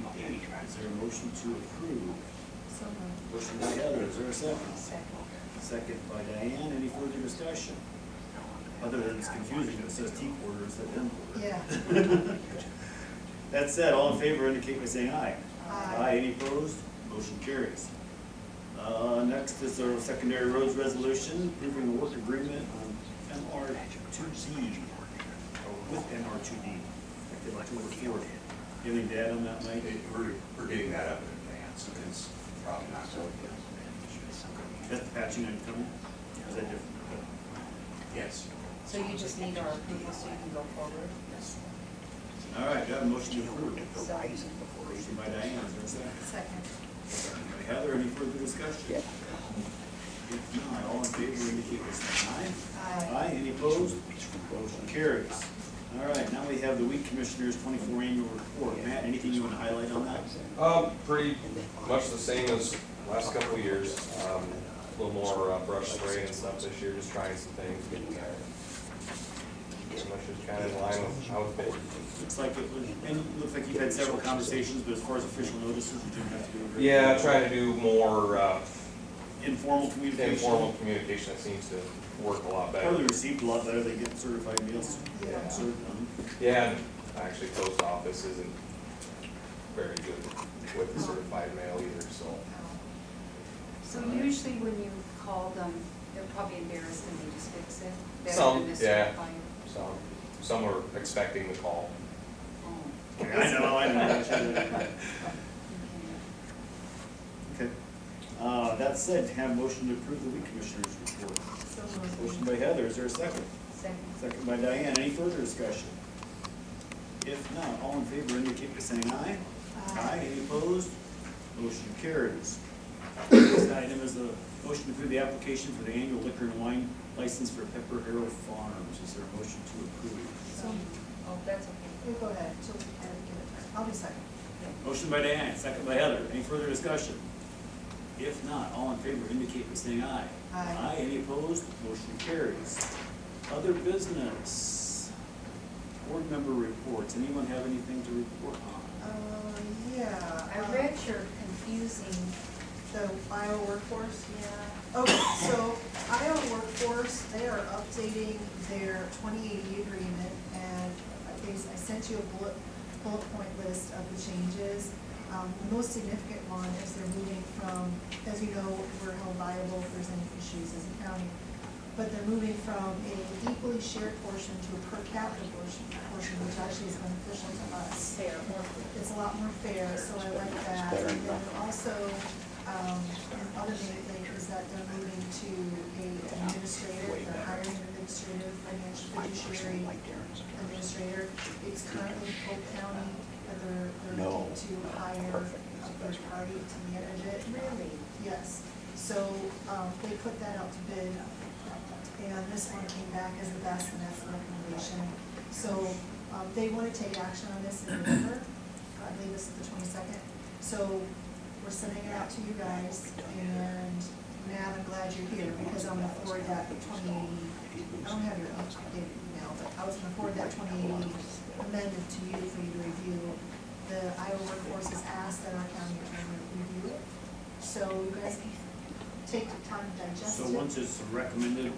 Is there a motion to approve? So moved. Motion by Heather, is there a second? Second. Second by Diane, any further discussion? Other than it's confusing, it says T quarter instead of M quarter. Yeah. That said, all in favor indicate by saying aye. Aye. any opposed? Motion carries. Uh, next is our secondary roads resolution, approving a work agreement on MR two D, or with MR two D, effective October fourth. You have any data on that, Mike? It- We're, we're getting that up in advance, and it's probably not so. That's the patching and coming, is that different? Yes. So you just need our approval so you can go forward? Yes. All right, got a motion to approve. So, Motion by Diane, is there a second. second? By Heather, any further discussion? If not, all in favor indicate by saying aye. Aye. Aye, any opposed? Motion carries. All right, now we have the weed commissioners twenty-four annual report. Matt, anything you want to highlight on that? Um, pretty much the same as last couple of years, um, a little more uh, brush spray and stuff this year, just trying some things, getting there. Pretty much just kind of in line with how it's been. Looks like, it was- and it looks like you've had several conversations, but as far as official notices, you didn't have to do it. Yeah, trying to do more, uh, Informal communication. informal communication, that seems to work a lot better. Probably received a lot better, they get certified meals. Yeah. Cert- um, Yeah, and actually, post office isn't very good with certified mail either, so. Um, So usually when you call them, they're probably embarrassed and they just fix it? Better Some, than this yeah. fire. Some, some are expecting the call. Oh, I know, I know. okay. Okay. Uh, that said, have motion to approve the weed commissioners report. So Motion moved. by Heather, is there a second? Second. Second by Diane, any further discussion? If not, all in favor indicate by saying aye. Aye. any opposed? Motion carries. Next item is a motion to approve the application for the annual liquor and wine license for Pepper Arrow Farms. Is there a motion to approve? So moved. Oh, that's okay. You go ahead, she'll, give it back. I'll be second. Motion by Diane, second by Heather, any further discussion? If not, all in favor indicate by saying aye. Aye. any opposed? Motion carries. Other business, board member reports, anyone have anything to report on? Uh, yeah. Uh, uh, I read your confusing, The Iowa workforce? Yeah. Okay, so Iowa workforce, they are updating their twenty eighty agreement, and I bas- I sent you a bullet, bullet point list of the changes. Um, the most significant one is they're moving from, as you know, we're held liable if there's any issues as a county, but they're moving from a equally shared portion to a per capita portion, portion, which actually is beneficial to us fair or it's a lot more fair, so I like that. And then also, um, another big thing is that they're moving to a administrator, they're hiring an administrator, financial fiduciary administrator. It's currently Polk County, but they're, they're looking to hire a third party to manage it. Really? Yes, so, um, they put that out to bid, and this one came back as the best, and that's the recommendation. So, um, they wanna take action on this in November, uh, I believe this is the twenty-second. So, we're sending it out to you guys, and Matt, I'm glad you're here, because I'm gonna forward that twenty, I don't have your updated email, but I was gonna forward that twenty eighty amended to you for you to review. The Iowa Workforce has asked that our county attorney review it, so you guys can take the time to digest So it. once it's recommended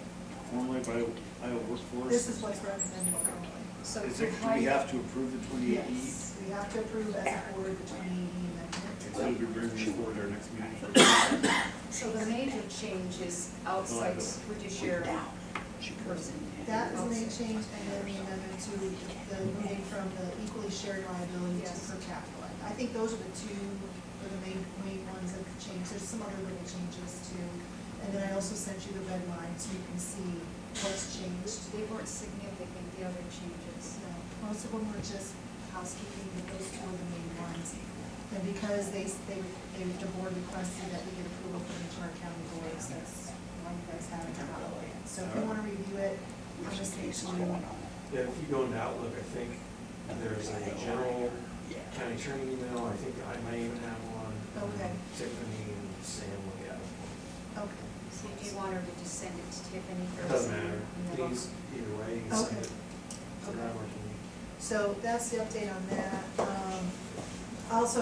formally by Iowa Workforce? This is what's recommended currently. So Is you're it, do we right. have to approve the twenty-eight E? Yes, we have to approve as a board the twenty eighty So amendment. we bring this forward our next meeting for. So the major change is outside fiduciary person. That is the main change, and then the amendment to the moving from the equally shared liability to Yes. per capita. liability. I think those are the two, are the main, main ones that could change. There's some other little changes too. And then I also sent you the red line, so you can see what's changed. They weren't significant, the other changes. So most of them were just housekeeping, but those two were the main ones. And because they, they, they, the board requested that we get approval from each of our county boards, that's why you guys have it in our way. So if you wanna review it, I'm just gonna Yeah, if you go into Outlook, I think there's a general county attorney email, I think I might even have one. Okay. Tiffany and Sam will get it. Okay. So do you want her to just send it to Tiffany It first? Doesn't matter, No. please, either way, you can send Okay. it. So Okay. that working. So that's the update on that. Um, also,